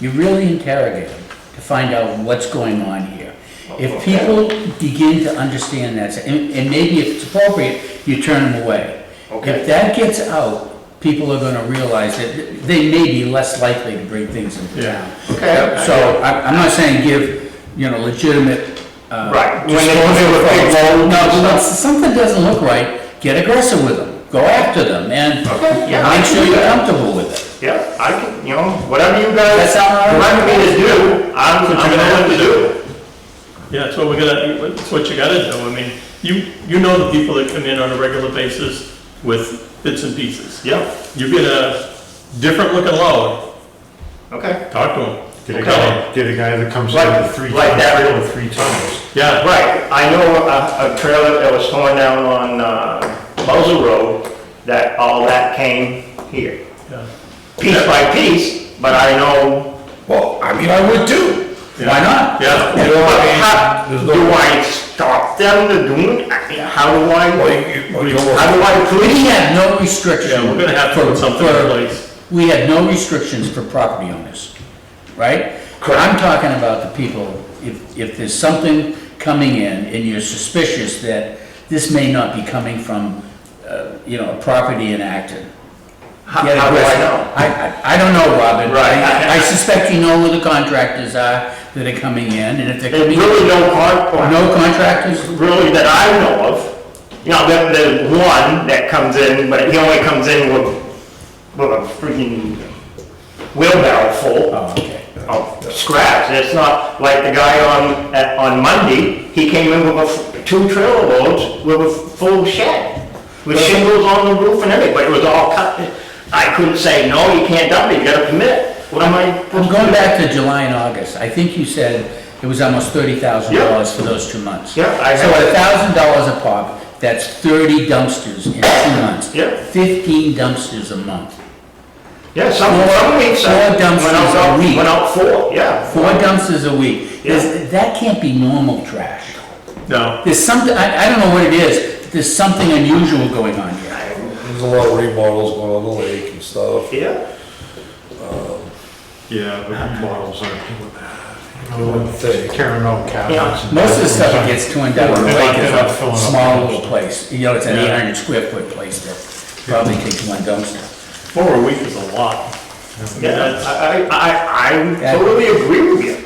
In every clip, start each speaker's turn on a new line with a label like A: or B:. A: You really interrogate them to find out what's going on here. If
B: Okay.
A: people begin to understand that, and, and maybe if it's appropriate, you turn them away.
B: Okay.
A: If that gets out, people are gonna realize that they may be less likely to bring things into
C: Yeah.
A: town.
B: Okay.
A: So I, I'm not saying give, you know, legitimate, uh.
B: Right. When they-
A: disclosure
B: when they
A: of
B: vote
A: things.
B: and
A: No, but when
B: stuff.
A: something doesn't look right, get aggressive with them, go after them, and
B: Okay, yeah, I
A: make
B: can
A: sure
B: do
A: you're
B: that.
A: comfortable with it.
B: Yeah, I can, you know, whatever you guys
A: That sound all right?
B: direct me to do, I'm, I'm willing to do.
C: Yeah, that's what we're gonna, that's what you gotta do. I mean, you, you know the people that come in on a regular basis with bits and pieces.
B: Yeah,
C: You get a different looking load,
B: okay.
C: talk to them.
D: Get a guy, get a guy that comes in
B: Like-
D: with three.
B: like
D: tons-
B: that.
D: With three tons.
C: Yeah,
B: Right, I know a, a trailer that was torn down on, uh, Buzzell Road, that all that came here,
C: yeah.
B: piece by piece, but I know,
E: Well, I mean, I would too.
A: Why not?
C: Yeah,
B: but
E: You know, I mean,
B: how,
E: there's no-
B: do I stop them to do it? I mean, How do
E: Well,
B: I,
E: you- well, you know,
B: how do I
A: We
B: police?
A: had no restrictions.
C: Yeah, we're gonna have to put something in
A: for-
C: place.
A: We had no restrictions for property owners, right? I'm talking about the people, if, if there's something coming in and you're suspicious that this may not be coming from, uh, you know, a property in Acton.
B: How
A: Get
B: how do I
A: aggressive.
B: know?
A: I, I- I don't know, Robin.
B: Right.
A: I I suspect you know who the contractors are that are coming in, and if they're
B: There's
A: coming,
B: really no hard,
A: no contractors?
B: really that I know of. You know, there, there's one that comes in, but he only comes in with, with a freaking wheelbarrow full
A: Oh, okay.
B: of scraps. It's not like the guy on, at- on Monday, he came in with a, f- two trailer loads with a full shed, with shingles on the roof and everything, but it was all cut. I couldn't say, no, you can't dump it, you gotta commit it. What am I?
A: I'm going back to July and August. I think you said it was almost thirty thousand
B: Yeah.
A: dollars for those two months.
B: Yeah, I
A: So
B: have-
A: a thousand dollars a pop, that's thirty dumpsters in two months.
B: Yeah.
A: Fifteen dumpsters a month.
B: Yeah, some, some weeks I
A: Four dumpsters
B: went out-
A: a week.
B: Went out four, yeah.
A: Four dumpsters a week. There's- That can't be normal trash.
C: no,
A: There's something, I, I don't know what it is, but there's something unusual going on here.
E: There's a lot of remodels going on the lake and stuff.
B: Yeah.
D: Yeah, but models aren't doing that. You know,
E: Wouldn't think.
D: Carrying out cabinets. and-
A: Most of the stuff that gets torn down in the lake is
D: They're not filling
A: a
D: up
A: small
D: dumpsters.
A: little place. You know, it's an eight
C: Yeah.
A: hundred square foot place that probably takes one dumpster.
C: four a week is a lot. I mean,
B: Yeah,
C: that's-
B: I, I, I-
A: Yeah.
B: I totally agree with you.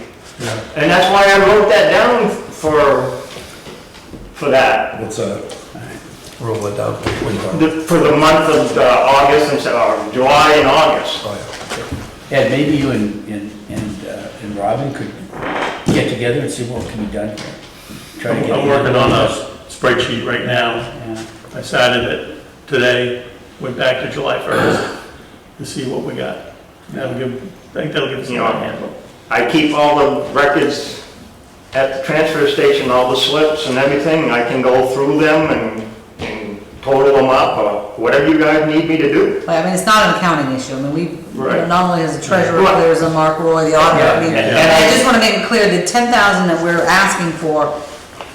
D: Yeah.
B: And that's why I wrote that down for, for that,
E: What's that? Roll it down.
B: the- for the month of uh, August and, Sep- or July and August.
A: Ed, maybe you and, and, and uh, and Robin could get together and see what can be done here. Try to get
C: I'm working on a spreadsheet right now.
A: Yeah.
C: I started it today, went back to July first to see what we got. That'll give, I think that'll give us a
B: You know,
C: lot of handle.
B: I keep all the records at the transfer station, all the slips and everything. I can go through them and, and total them up or whatever you guys need me to do.
F: But I mean, it's not an accounting issue, I mean, we,
B: Right.
F: not only as a treasurer,
B: Right.
F: there's a Mark Roy, the auditor, I mean,
B: Yeah, yeah.
F: and I just wanna make it clear, the ten thousand that we're asking for,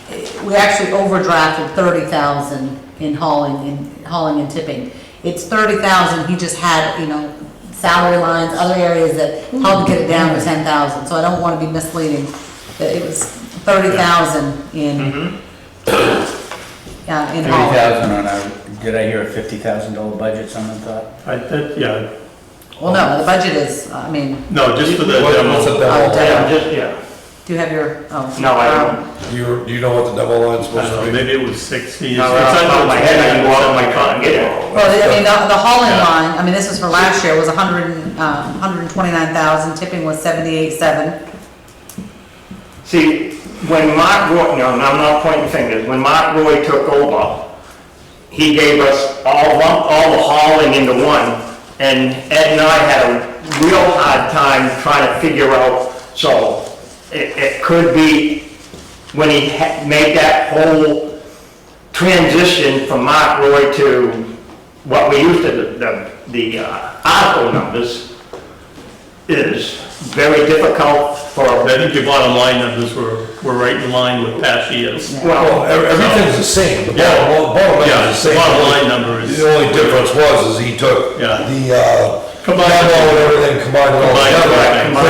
F: eh, we actually overdrafted thirty thousand in hauling, in hauling and tipping. It's thirty thousand, he just had, you know, salary lines, other areas that helped get it down to ten thousand, so I don't wanna be misleading, that it was thirty thousand in,
B: Mm-hmm.
F: yeah, in
A: Thirty
F: hauling.
A: thousand on our, did I hear a fifty thousand dollar budget, someone thought?
C: I, that, yeah,
F: Well, no, the budget is, I mean,
C: no, just for the
E: What- what's
C: demo. Uh,
E: the
F: Oh,
E: demo?
B: Yeah, just, yeah.
F: do you have your, oh.
B: No, I don't.
E: Do you, do you know what the demo line's
C: I don't know,
E: supposed to be?
C: maybe it was sixty.
B: Now,
C: It's- it's
B: off the top of my
C: under
B: head, I can go out
C: 10,
B: on my car and get it.
F: Well, I mean, the the hauling
C: Yeah.
F: line, I mean, this was for last year, was a hundred and, um, hundred and twenty-nine thousand, tipping was seventy-eight, seven.
B: See, when Mark Roy, no, I'm not pointing fingers, when Mark Roy took over, he gave us all, one- all the hauling into one, and Ed and I had a real hard time trying to figure out, so it, it could be when he ha- made that whole transition from Mark Roy to what we used to, the- the, the uh, article numbers, is very difficult for a
C: I think your bottom line numbers were, were right in line with E past years.
E: Well,
B: Well,
E: ev- everything's the same, the
C: Yeah.
E: bottom, the bottom line
C: Yeah,
E: is the
C: the
E: same.
C: bottom line number is,
E: The only difference was, is he took
C: Yeah.
E: the, uh,
C: Combined.
E: demo and everything, combined it all
C: Combined
E: together,
C: everything.